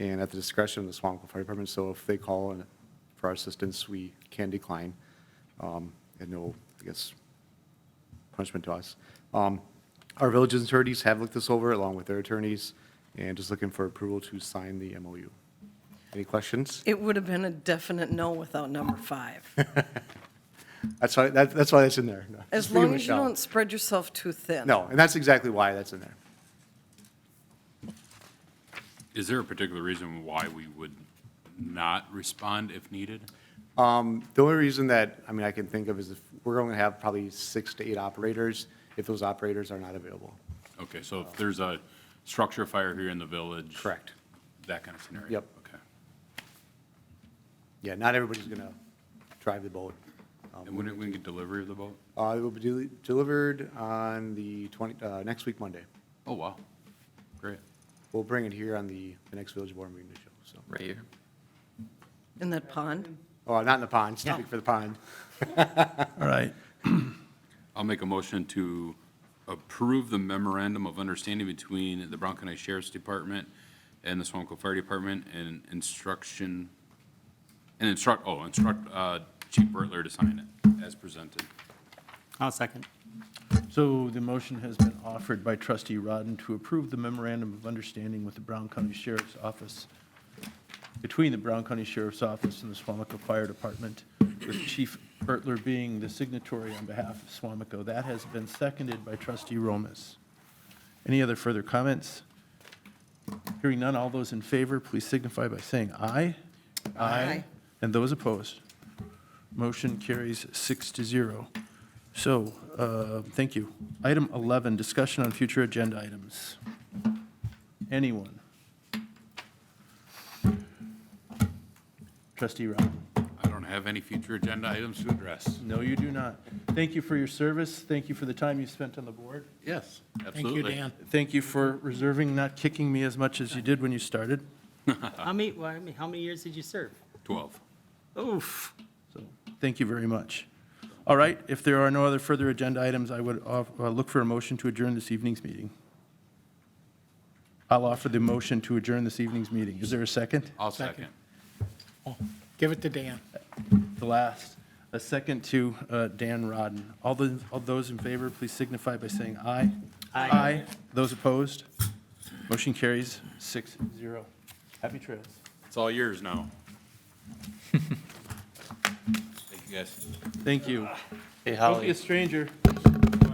and at the discretion of the Swamaco Fire Department. So if they call and for our assistance, we can decline, um, and no, I guess, punishment to us. Um, Our village's attorneys have looked this over along with their attorneys, and just looking for approval to sign the MOU. Any questions? It would have been a definite no without number five. That's why, that- that's why that's in there. No, As just reading long as you Michelle. don't spread yourself too thin. No, and that's exactly why that's in there. Is there a particular reason why we would not respond if needed? The only reason that, I mean, I can think of is if we're going to have probably six to eight operators if those operators are not available. Okay, so if there's a structure fire here in the village? Uh, Correct. That kind of scenario? Yep. Okay. Yeah, not everybody's going to drive the boat. Um, And when, when we get delivery of the boat? Uh, It will be deli- delivered on the 20, uh, next week, Monday. Oh, wow. Great. We'll bring it here on the, the next village board meeting to show, so. Right here. In that pond? Oh, not in the pond, speak for the pond. All right. I'll make a motion to approve the memorandum of understanding between the Brown County Sheriff's Department and the Swamco Fire Department and instruction, and instruct, oh, instruct uh, Chief Bertler to sign it as presented. I'll second. So the motion has been offered by trustee Rodden to approve the memorandum of understanding with the Brown County Sheriff's Office, between the Brown County Sheriff's Office and the Swamico Fire Department, with Chief Bertler being the signatory on behalf of Swamico. That has been seconded by trustee Romas. Any other further comments? Hearing none, all those in favor, please signify by saying aye. Aye. And those opposed? Motion carries six to zero. So, uh, thank you. Item 11, discussion on future agenda items. Anyone? Trustee Rob? I don't have any future agenda items to address. No, you do not. Thank you for your service. Thank you for the time you spent on the board. Yes, Thank you, absolutely. Dan. Thank you for reserving, not kicking me as much as you did when you started. How many, well, I mean, how many years did you serve? 12. Oof. So, thank you very much. All right, if there are no other further agenda items, I would off- uh, look for a motion to adjourn this evening's meeting. I'll offer the motion to adjourn this evening's meeting. Is there a second? I'll second. Give it to Dan. The last, a second to uh, Dan Rodden. All the, all those in favor, please signify by saying aye. Aye. Those opposed? Motion carries six zero. Happy trails. It's all yours now. Thank you, guys. Thank you. Hey, Don't be a Holly, stranger.